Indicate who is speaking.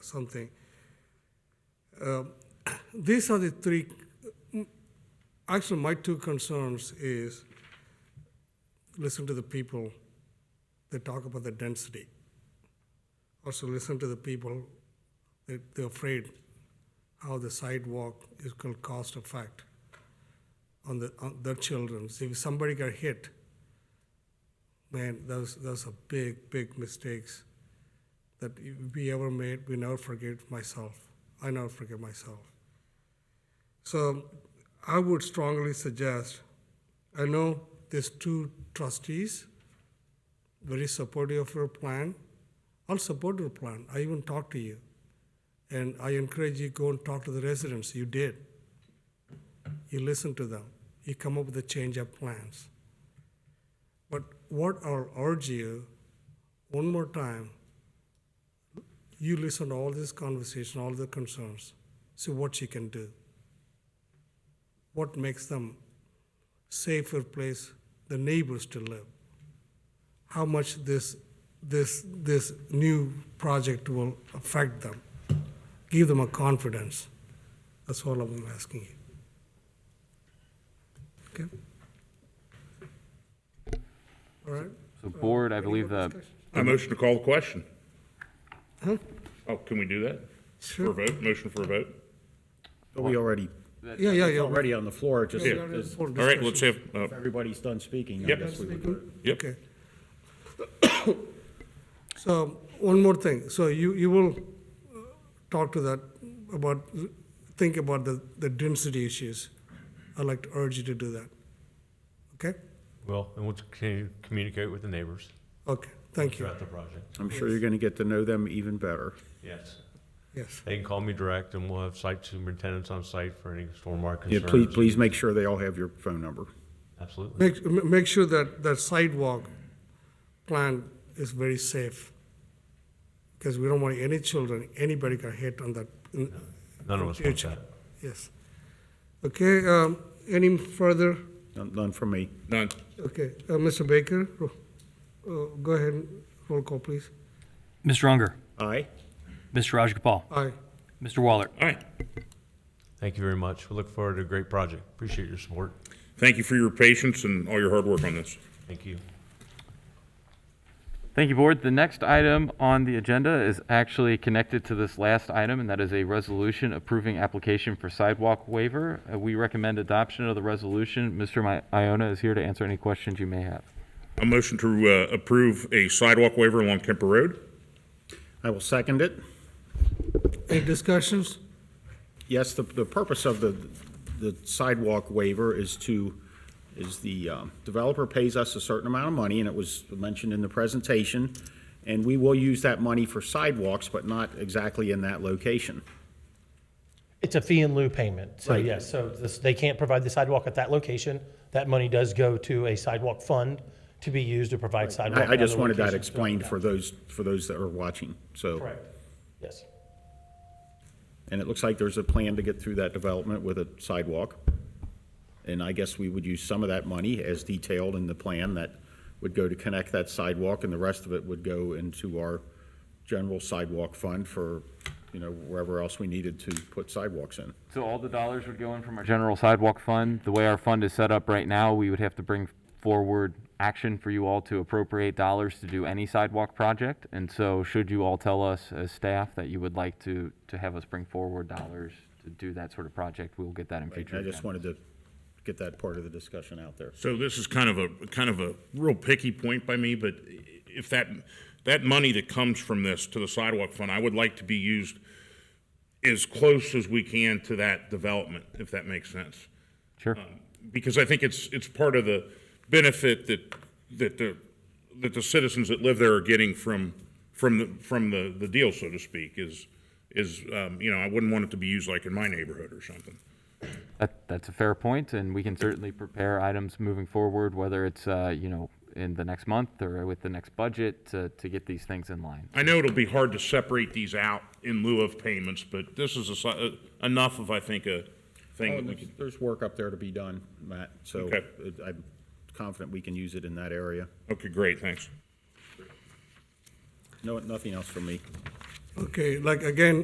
Speaker 1: something. Um, These are the three, actually, my two concerns is, listen to the people that talk about the density. Also listen to the people that they're afraid how the sidewalk is going to cost effect on the, on their children. See, If somebody got hit, man, those, those are big, big mistakes that we ever made, we never forget myself. I never forget myself. So I would strongly suggest, I know these two trustees, very supportive of your plan. I'll support your plan. I even talked to you. And I encourage you go and talk to the residents. You did. You listen to them. You come up with a change of plans. But what I'll urge you, one more time, you listen to all this conversation, all the concerns, see what you can do. What makes them safer place, the neighbors to live. How much this, this, this new project will affect them. Give them a confidence. That's all I'm asking you. Okay? All right?
Speaker 2: So board, I believe the,
Speaker 3: I motion to call the question.
Speaker 1: Huh?
Speaker 3: Oh, can we do that? For a
Speaker 1: Sure.
Speaker 3: vote, motion for a vote?
Speaker 4: But we already,
Speaker 1: Yeah, yeah,
Speaker 4: it's
Speaker 1: yeah.
Speaker 4: already on the floor, just
Speaker 3: Yeah.
Speaker 4: as
Speaker 1: Full
Speaker 3: All right,
Speaker 1: discussion.
Speaker 3: let's have, uh,
Speaker 4: everybody's done speaking, I
Speaker 3: Yep.
Speaker 4: guess we would.
Speaker 3: yep,
Speaker 1: Okay. So, one more thing, so you, you will uh, talk to that about, think about the, the density issues. I'd like to urge you to do that. Okay?
Speaker 5: Well, and we'll continue to communicate with the neighbors
Speaker 1: Okay, thank you,
Speaker 5: throughout the project.
Speaker 4: I'm sure you're gonna get to know them even better.
Speaker 5: Yes.
Speaker 1: yes.
Speaker 5: They can call me direct and we'll have site superintendents on site for any stormwater
Speaker 4: Yeah, please,
Speaker 5: concerns.
Speaker 4: please make sure they all have your phone number.
Speaker 5: Absolutely.
Speaker 1: Make, ma- make sure that, that sidewalk plan is very safe, because we don't want any children, anybody got hit on that, in-
Speaker 5: None of us want
Speaker 1: future.
Speaker 5: that.
Speaker 1: Yes. Okay, um, any further?
Speaker 4: None none from me.
Speaker 3: none.
Speaker 1: Okay, uh, Mr. Baker, ro- uh, go ahead, and roll call, please.
Speaker 6: Mr. Unger,
Speaker 4: Aye?
Speaker 6: Mr. Raj Gopal,
Speaker 1: Aye.
Speaker 6: Mr. Waller.
Speaker 3: All right.
Speaker 5: Thank you very much. We look forward to a great project. Appreciate your support.
Speaker 3: Thank you for your patience and all your hard work on this.
Speaker 5: Thank you.
Speaker 2: thank you, board. The next item on the agenda is actually connected to this last item, and that is a resolution approving application for sidewalk waiver. Uh, We recommend adoption of the resolution. Mr. Mi- Iona is here to answer any questions you may have.
Speaker 3: A motion to uh, approve a sidewalk waiver along Kemper Road?
Speaker 4: I will second it.
Speaker 1: Any discussions?
Speaker 4: Yes, the, the purpose of the, the sidewalk waiver is to, is the um, developer pays us a certain amount of money, and it was mentioned in the presentation, and we will use that money for sidewalks, but not exactly in that location.
Speaker 7: It's a fee in lieu payment. So yes, so this, they can't provide the sidewalk at that location. That money does go to a sidewalk fund to be used to provide sidewalk.
Speaker 4: I, I
Speaker 7: at
Speaker 4: just
Speaker 7: other
Speaker 4: wanted that
Speaker 7: locations.
Speaker 4: explained for those, for those that are watching, so.
Speaker 7: Correct. Yes.
Speaker 4: And it looks like there's a plan to get through that development with a sidewalk. And I guess we would use some of that money as detailed in the plan that would go to connect that sidewalk and the rest of it would go into our general sidewalk fund for, you know, wherever else we needed to put sidewalks in.
Speaker 2: So all the dollars would go in from our general sidewalk fund. The way our fund is set up right now, we would have to bring forward action for you all to appropriate dollars to do any sidewalk project. And so should you all tell us as staff that you would like to, to have us bring forward dollars to do that sort of project, we will get that in future.
Speaker 4: And I just
Speaker 2: agenda.
Speaker 4: wanted to get that part of the discussion out there.
Speaker 3: So this is kind of a, kind of a real picky point by me, but if that, that money that comes from this to the sidewalk fund, I would like to be used as close as we can to that development, if that makes sense. Um,
Speaker 2: Sure.
Speaker 3: because I think it's, it's part of the benefit that, that the, that the citizens that live there are getting from, from the, from the, the deal, so to speak, is, is, um, you know, I wouldn't want it to be used like in my neighborhood or something.
Speaker 2: That, that's a fair point, and we can certainly prepare items moving forward, whether it's, uh, you know, in the next month or with the next budget to, to get these things in line.
Speaker 3: I know it'll be hard to separate these out in lieu of payments, but this is a, si- uh, enough of, I think, a
Speaker 4: Oh,
Speaker 3: thing that we could,
Speaker 4: There's work up there to be done, Matt, so
Speaker 3: Okay.
Speaker 4: it- I'm confident we can use it in that area.
Speaker 3: okay, great, thanks.
Speaker 4: No, nothing else from me.
Speaker 1: Okay, like again,